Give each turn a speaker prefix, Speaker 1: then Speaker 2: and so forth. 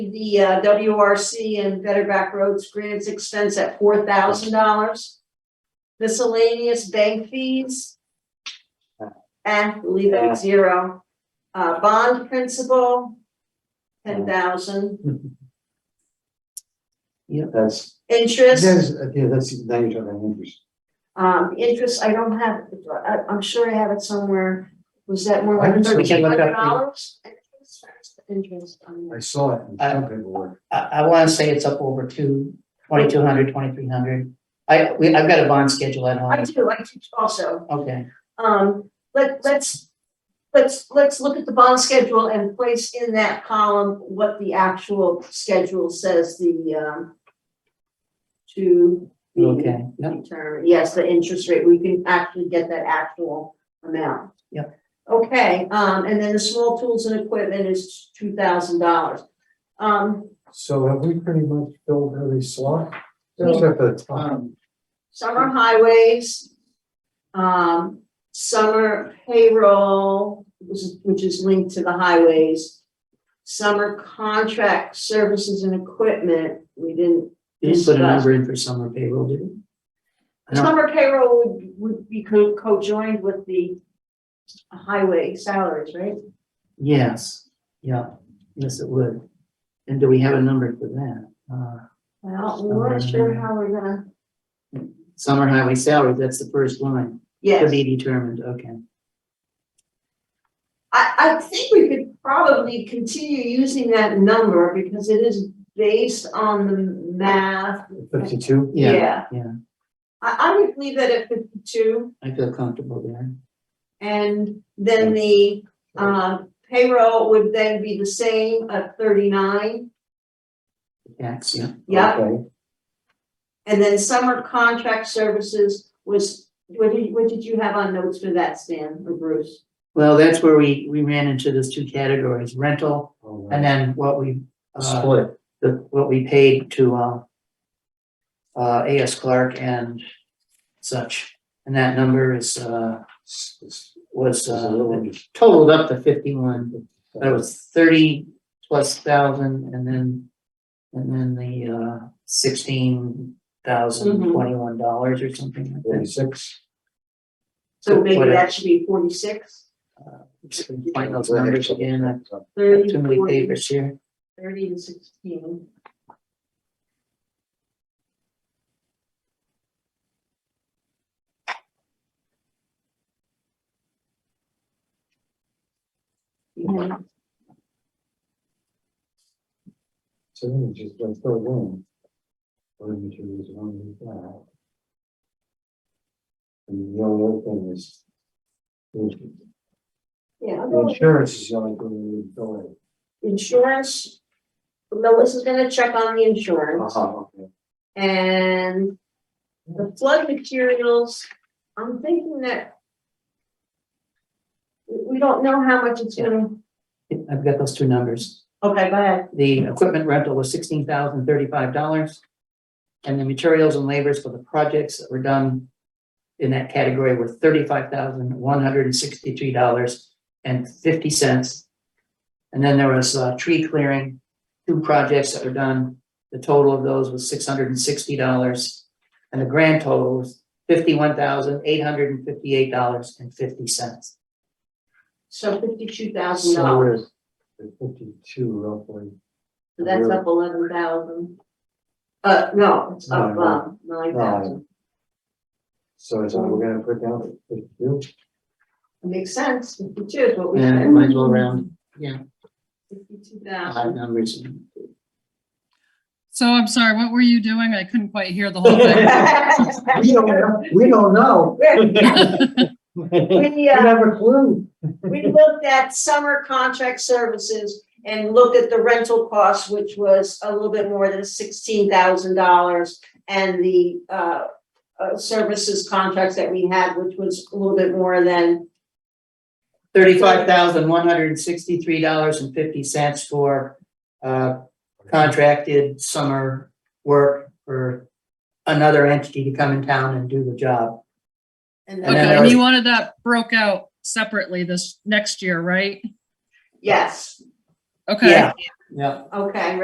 Speaker 1: the uh, WRC and Better Back Roads grants expense at four thousand dollars. Miscellaneous bank fees. And leave it
Speaker 2: Yeah.
Speaker 1: at zero. Uh, bond principal, ten thousand.
Speaker 2: Mm-hmm. Yeah, that's,
Speaker 1: Interest,
Speaker 2: there's, yeah, that's the danger of an interest.
Speaker 1: um, interest, I don't have, I, I'm sure I have it somewhere. Was that more
Speaker 2: I
Speaker 1: like
Speaker 2: can certainly
Speaker 1: thirteen
Speaker 3: look
Speaker 1: hundred
Speaker 3: up the-
Speaker 1: dollars? Interest on
Speaker 2: I saw it in
Speaker 3: Uh,
Speaker 2: some paperwork.
Speaker 3: I, I wanna say it's up over two, twenty-two hundred, twenty-three hundred. I, we, I've got a bond schedule at
Speaker 1: I
Speaker 3: home,
Speaker 1: do, I do also.
Speaker 3: okay,
Speaker 1: Um, let, let's, let's, let's look at the bond schedule and place in that column what the actual schedule says, the, um, to the
Speaker 3: okay, no,
Speaker 1: determine, yes, the interest rate, we can actually get that actual amount.
Speaker 3: Yep.
Speaker 1: Okay, um, and then the small tools and equipment is two thousand dollars. Um,
Speaker 2: So have we pretty much filled every slot?
Speaker 1: We-
Speaker 2: Except for the top.
Speaker 3: um,
Speaker 1: summer highways, um, summer payroll, which is- which is linked to the highways, summer contract services and equipment, we didn't,
Speaker 3: you didn't put a number in for summer payroll, did you? I don't-
Speaker 1: summer payroll would, would be co- co-joined with the highway salaries, right?
Speaker 3: Yes, yeah, yes, it would. And do we have a number for that? Uh,
Speaker 1: Well, we're not sure how we're gonna,
Speaker 3: summer highway salary, that's the first line, to
Speaker 1: yes,
Speaker 3: be determined, okay.
Speaker 1: I, I think we could probably continue using that number because it is based on the math,
Speaker 2: Fifty-two?
Speaker 3: Yeah,
Speaker 1: yeah.
Speaker 3: yeah,
Speaker 1: I, I would leave it at fifty-two,
Speaker 3: I feel comfortable there.
Speaker 1: and then the, um, payroll would then be the same at thirty-nine.
Speaker 3: Tax, yeah,
Speaker 1: Yeah,
Speaker 2: Okay.
Speaker 1: and then summer contract services was, what did, what did you have on notes for that, Stan or Bruce?
Speaker 3: well, that's where we, we ran into those two categories, rental,
Speaker 2: All right.
Speaker 3: and then what we, uh,
Speaker 2: Split.
Speaker 3: the, what we paid to, uh, uh, A.S. Clark and such, and that number is, uh,
Speaker 2: It's- it's-
Speaker 3: was,
Speaker 2: it's a little
Speaker 3: uh,
Speaker 2: interesting.
Speaker 3: totaled up to fifty-one, that was thirty plus thousand, and then, and then the, uh, sixteen thousand twenty-one dollars or something like that.
Speaker 2: Forty-six.
Speaker 1: So maybe
Speaker 3: Whatever.
Speaker 1: that should be forty-six,
Speaker 3: Just gonna Find those numbers again, I've got
Speaker 1: thirty,
Speaker 3: too many
Speaker 1: forty,
Speaker 3: papers here,
Speaker 1: thirty and sixteen. Yeah.
Speaker 2: So then you just don't throw one. Or materials on the file. And the only other thing is. the-
Speaker 1: Yeah,
Speaker 2: the Insurance is the only thing we fill in.
Speaker 1: insurance, Melissa's gonna check on the insurance
Speaker 2: Uh-huh, okay.
Speaker 1: and the flood materials, I'm thinking that we we don't know how much it's gonna,
Speaker 3: I've got those two numbers.
Speaker 1: okay, go ahead.
Speaker 3: The equipment rental was sixteen thousand thirty-five dollars. And the materials and labors for the projects that were done in that category were thirty-five thousand one hundred and sixty-three dollars and fifty cents. And then there was, uh, tree clearing, two projects that were done. The total of those was six hundred and sixty dollars. And the grand total was fifty-one thousand eight hundred and fifty-eight dollars and fifty cents.
Speaker 1: So fifty-two thousand
Speaker 2: So
Speaker 1: dollars,
Speaker 2: we're at fifty-two roughly.
Speaker 1: so that's up eleven thousand. Uh, no, it's up,
Speaker 2: No, no.
Speaker 1: um, nine thousand,
Speaker 2: So is that we're gonna put down fifty-two?
Speaker 1: makes sense, fifty-two is what we.
Speaker 3: Yeah, I might as well round, yeah,
Speaker 1: Fifty-two
Speaker 3: odd
Speaker 1: thousand,
Speaker 3: numbers.
Speaker 4: So I'm sorry, what were you doing? I couldn't quite hear the whole thing.
Speaker 2: We don't know, we don't know. We
Speaker 1: we, uh,
Speaker 2: have a clue.
Speaker 1: We looked at summer contract services and looked at the rental cost, which was a little bit more than sixteen thousand dollars. And the uh uh services contracts that we had, which was a little bit more than,
Speaker 3: thirty-five thousand, one hundred and sixty-three dollars and fifty cents for, uh, contracted summer work for another entity to come in town and do the job.
Speaker 1: and
Speaker 3: then
Speaker 4: Okay,
Speaker 3: there
Speaker 4: and
Speaker 3: was-
Speaker 4: you wanted that broke out separately this next year, right?
Speaker 1: yes,
Speaker 4: Okay.
Speaker 3: Yeah,
Speaker 1: okay,